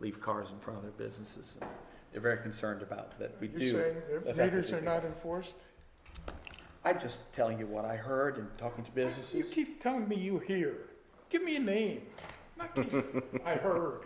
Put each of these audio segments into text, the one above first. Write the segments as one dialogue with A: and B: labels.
A: leave cars in front of their businesses. and They're very concerned about that we do.
B: You're saying
A: the
B: that
A: fact
B: meters
A: that we
B: are
A: do.
B: not enforced?
A: I'm just telling you what I heard and talking to
B: You
A: businesses.
B: keep telling me you hear. Give me a name. Not keep, I heard.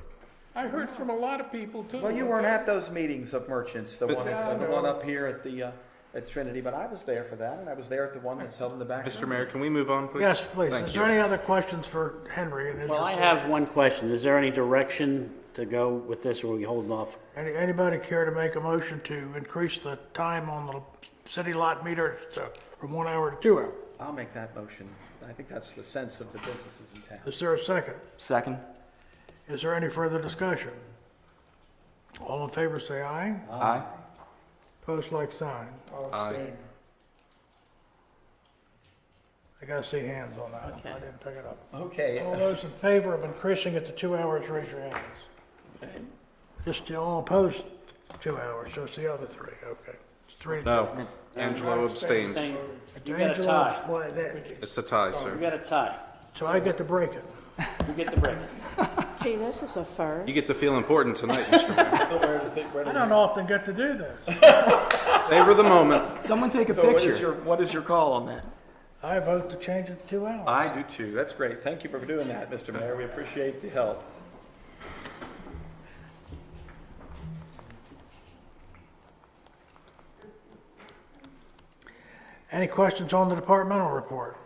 B: I heard from a lot of people too.
A: Well, you weren't
B: okay?
A: at those meetings of merchants, the one,
B: Yeah, I
A: the one
B: know.
A: up here at the, uh, at Trinity, but I was there for that, and I was there at the one that's held in the back.
C: Mr. Mayor, can we move on, please?
D: Yes, please.
C: Thank
D: Is
C: you.
D: there any other questions for Henry? and his
E: Well, I
D: report?
E: have one question. Is there any direction to go with this, or are we holding off?
D: Any, anybody care to make a motion to increase the time on the city lot meter to, from one hour to two hours?
A: I'll make that motion. I think that's the sense of the businesses in town.
D: Is there a second?
F: Second.
D: Is there any further discussion? All in favor, say aye.
F: Aye.
D: Post like sign.
B: I'll abstain.
D: I gotta see hands on that. one. I didn't pick it up. All
A: Okay,
D: those in favor of increasing it to two hours, raise your hands. Just the all opposed, two hours, so it's the other three, okay. It's Three to two.
C: No, Angelo abstained.
E: Saying, you got a
D: Angelo,
E: tie.
D: well, that-
C: It's a tie,
D: Oh,
E: You
C: sir.
E: got a tie.
D: So I get to break it.
E: You get the break.
G: Gee, this is a first.
C: You get to feel important tonight, Mr. Mayor.
A: so where does it, where
D: I
A: does it?
D: don't often get to do this.
C: Savor the moment.
F: Someone take a
A: So what is
F: picture.
A: your, what is your call on that?
D: I vote to change it to two hours.
A: I do too. That's great. Thank you for doing that, Mr. Mayor. We appreciate the help.
D: Any questions on the departmental report?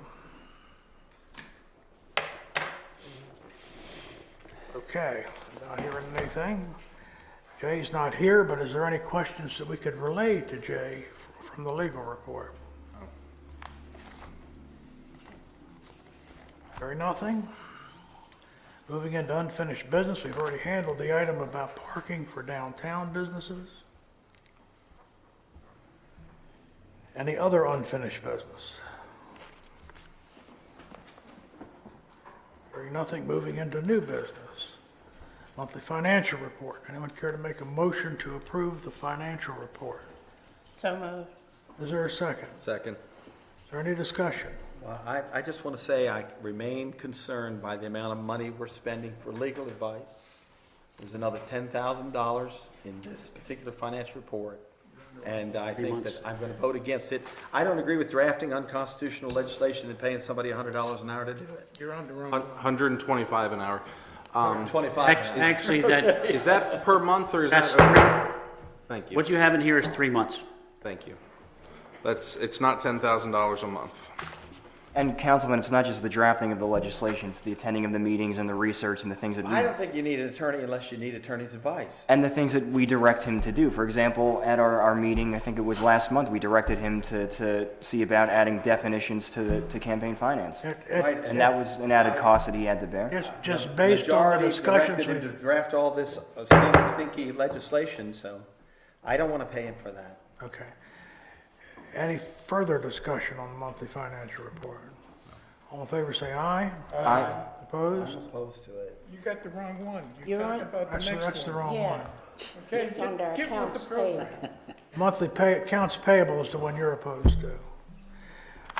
D: Okay, not hearing anything. Jay's not here, but is there any questions that we could relay to Jay f- from the legal report? Hearing nothing? Moving into unfinished business, we've already handled the item about parking for downtown businesses. Any other unfinished business? Hearing nothing, moving into new business. Monthly financial report. Anyone care to make a motion to approve the financial report?
G: So moved.
D: Is there a second? Is
C: Second.
D: there any discussion?
A: Well, I, I just want to say I remain concerned by the amount of money we're spending for legal advice. There's another ten thousand dollars in this particular financial report, and I think that I'm going to vote against it. I don't agree with drafting unconstitutional legislation and paying somebody hundred dollars an hour to do it.
B: You're on the wrong.
C: Hun- 125 an hour. Um,
A: Twenty-five.
E: Act- Actually, that,
C: Is that per month or is
E: that's
C: that? over-
E: three,
C: Thank you,
E: what you have in here is three months.
C: thank you. That's, it's not $10,000 a month.
F: And Councilman, it's not just the drafting of the legislation, it's the attending of the meetings and the research and the things that we
A: I don't think you need an attorney unless you need attorney's advice.
F: and the things that we direct him to do. For example, at our, our meeting, I think it was last month, we directed him to, to see about adding definitions to, the- to campaign finance.
D: It-
A: Right,
D: it-
F: And that was an added cost that he had to bear.
D: Just, just based on the
A: Majority
D: discussions
A: directed him to
D: we've...
A: draft all this uh, stinky, stinky legislation, so I don't want to pay him for that.
D: Okay. Any further discussion on the monthly financial report? All in favor, say aye.
F: Aye.
D: Opposed?
A: Opposed to it.
B: You got the wrong one. You're
G: You're
B: talking
G: on-
B: about the
D: Actually, that's
B: next
D: the
B: one.
D: wrong one.
G: Yeah.
B: Okay,
G: It's under
B: get, get with the
G: accounts
B: program.
G: payable.
D: Monthly pay, accounts payable is the one you're opposed to.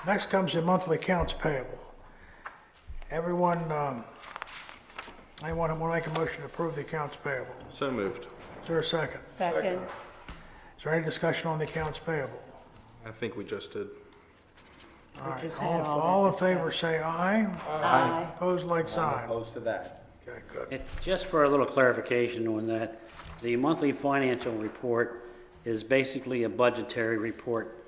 D: Next comes the monthly accounts payable. Everyone, um, anyone who want to make a motion to approve the accounts payable?
C: So moved.
D: Is there a second?
G: Second.
D: Is there any discussion on the accounts payable?
C: I think we just did.
D: All right,
G: just had
D: all,
G: all that
D: all in favor, say aye.
G: Aye.
D: Opposed, like sign.
A: Opposed to that.
D: Okay, good.
E: It- Just for a little clarification on that, the monthly financial report is basically a budgetary report.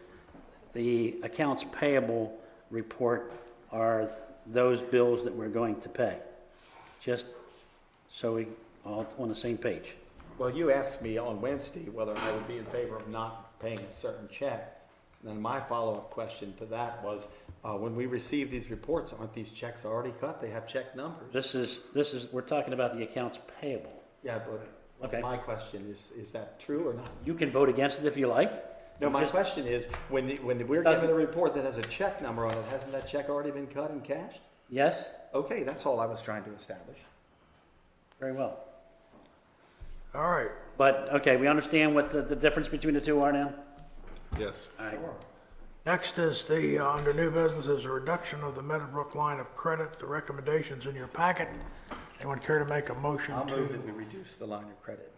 E: The accounts payable report are those bills that we're going to pay, just so we all on the same page.
A: Well, you asked me on Wednesday whether I would be in favor of not paying a certain check. And then my follow-up question to that was, uh, when we receive these reports, aren't these checks already cut? They have check numbers.
E: This is, this is, we're talking about the accounts payable.
A: Yeah, but
E: Okay.
A: my question is, is that true or not?
E: You can vote against it if you like.
A: No, my
E: Just-
A: question is, when, the- when we're given
E: Doesn't-
A: a report that has a check number on it, hasn't that check already been cut and cashed?
E: Yes,
A: Okay, that's all I was trying to establish.
E: very well.
D: All right,
E: But, okay, we understand what the, the difference between the two are now?
C: Yes.
E: All right.
D: next is the, uh, under new business is a reduction of the Meadowbrook line of credit. The recommendations in your packet. Anyone care to make a motion to?
A: I'll move that we reduce the line of credit.